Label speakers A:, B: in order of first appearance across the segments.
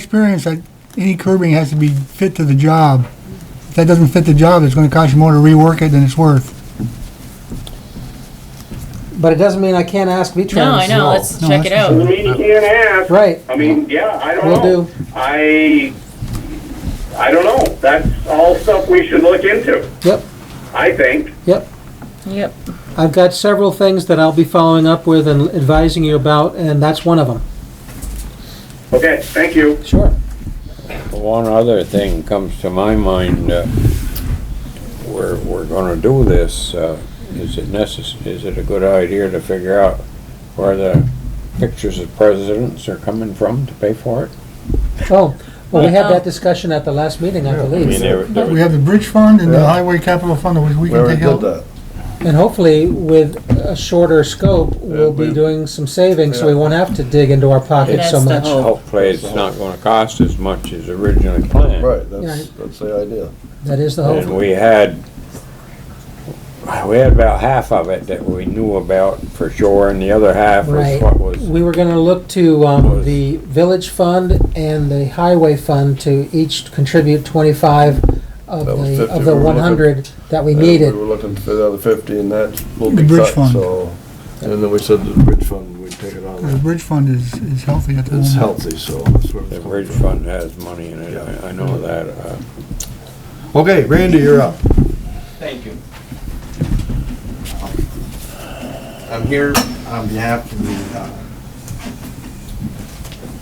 A: experience that any curbing has to be fit to the job. If that doesn't fit the job, it's gonna cost you more to rework it than it's worth.
B: But it doesn't mean I can't ask V-Trans.
C: No, I know, let's
A: No,
C: check it
A: that's-
C: out.
D: I mean, you can't ask.
B: Right.
D: I mean, yeah, I don't
B: Will
D: know.
B: do.
D: I, I don't know. That's all stuff we should look into,
B: Yep,
D: I think.
B: yep.
C: Yep.
B: I've got several things that I'll be following up with and advising you about, and that's one of them.
D: Okay, thank you.
B: Sure.
E: One other thing comes to my mind, uh, we're, we're gonna do this, uh, is it necess, is it a good idea to figure out where the pictures of presidents are coming from to pay for it?
B: Oh, well, we had that discussion at the last meeting, I
F: I mean,
B: believe.
F: there, there
A: We
F: was,
A: have the bridge fund and the
F: Yeah.
A: highway capital fund, which we
F: we
A: can
F: already
A: take
F: did
A: out.
F: that.
B: And hopefully, with a shorter scope, we'll be
F: we-
B: doing some savings, so we won't have to dig into our pockets so
C: That's the
B: much.
C: hope.
E: Hopefully, it's not gonna cost as much as originally planned.
F: Right,
B: Right.
F: that's, that's the idea.
B: That is the
E: And
B: hope.
E: we had, we had about half of it that we knew about for sure, and the other half was
B: Right.
E: what was,
B: We were gonna look to, um,
E: Was-
B: the village fund and the highway fund to each contribute twenty-five of
F: That was
B: the,
F: 50.
B: of the
F: We were
B: one
F: looking-
B: hundred that we
F: And
B: needed.
F: We were looking for the other fifty and that will
A: The
F: be
A: bridge
F: cut,
A: fund.
F: so. And then we said the bridge fund, we'd take it
A: The
F: on.
A: bridge fund is, is healthy at the
F: It's
A: moment.
F: healthy, so that's where it's
E: the
F: coming
E: bridge
F: from.
E: fund has money in it, I- I know that. uh,
F: Okay, Randy, you're up.
G: Thank you. I'm here on behalf of the uh,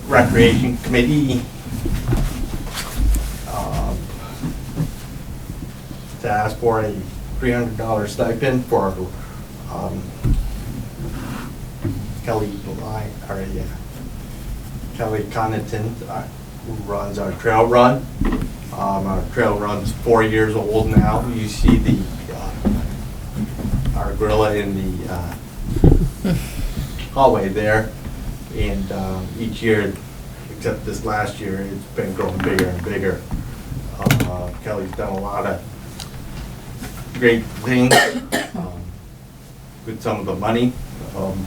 G: Recreation Committee. um, To ask for a three hundred dollar stipend for um, Kelly Bly, or yeah, Kelly Connaughton, uh, who runs our trail run. Um, Our trail run's four years old now. You see the, uh, our gorilla in the uh, hallway there. And um, each year, except this last year, it's been growing bigger and bigger. Uh, Kelly's done a lot of great things um, with some of the money. um,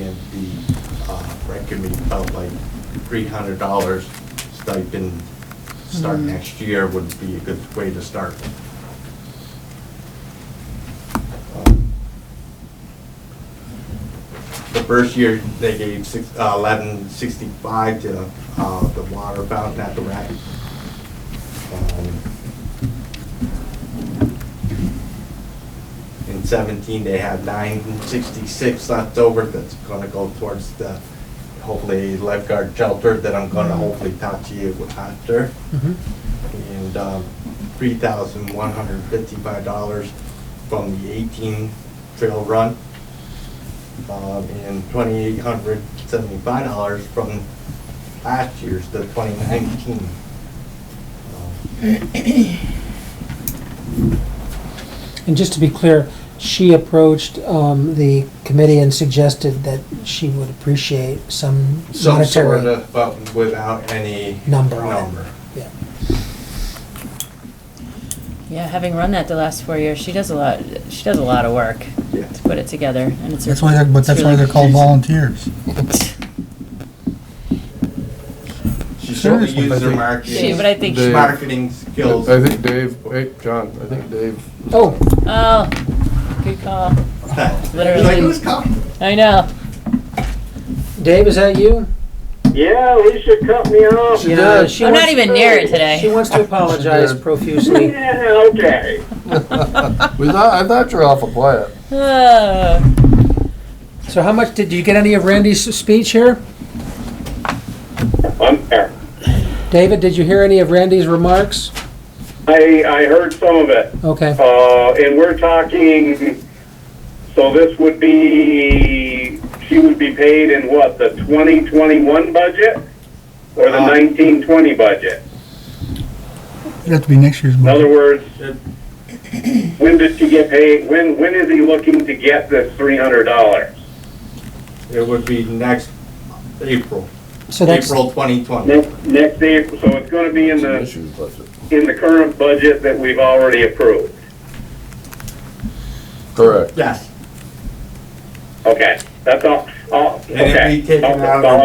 G: And the uh, rec committee felt like three hundred dollars stipend start next year would be a good way to start. Um, The first year, they gave six, uh, eleven sixty-five to uh, the water fountain at the rec. Um, In seventeen, they have nine sixty-six left over that's gonna go towards the, hopefully lifeguard shelter that I'm gonna hopefully talk to you after.
B: Mhm.
G: And, um, three thousand one hundred fifty-five dollars from the eighteen trail run. Um, and twenty-eight hundred seventy-five dollars from last year's, the twenty nineteen.
B: And just to be clear, she approached um, the committee and suggested that she would appreciate some
G: Some sort
B: monetary
G: of, but without any
B: number on it.
G: number.
B: Yeah.
C: Yeah, having run that the last four years, she does a lot, she does a lot of work
G: Yeah.
C: to put it together, and it's.
A: That's why, they're- but
C: it's
A: that's why
C: really-
A: they're called volunteers.
G: She certainly
A: Seriously,
G: used
F: I
G: her
F: think-
C: She, but
G: marketing,
C: I think,
F: They-
G: marketing skills.
F: I think Dave, wait, John, I think Dave,
B: Oh,
C: oh, good call,
G: Like,
C: literally,
G: who's coming?
C: I know.
B: Dave, is that you?
D: Yeah, Alicia cut me off.
F: She does.
B: she
C: I'm
B: wants-
C: not even near it
B: She
C: today.
B: wants to apologize
F: did.
B: profusely.
D: Yeah, okay.
F: we thought, I thought you were awful quiet.
C: Oh,
B: So how much, did you get any of Randy's speech here?
D: I'm there.
B: David, did you hear any of Randy's remarks?
D: I, I heard some of it.
B: Okay,
D: Uh, and we're talking, so this would be, she would be paid in what, the 2021 budget? Or the
G: Uh.
D: 1920 budget?
A: It'd have to be next year's
D: In other
A: budget.
D: words, when did she get paid, when, when is he looking to get this $300?
G: It would be next April,
B: so that's,
G: April 2020.
D: Next, next April, so it's gonna be in the,
F: Issues budget.
D: in the current budget that we've already approved?
F: Correct.
G: Yes.
D: Okay, that's all.
G: Oh,
D: And it'd
G: okay.
D: be taken
G: Okay,
D: out of
G: so
D: the
G: I'm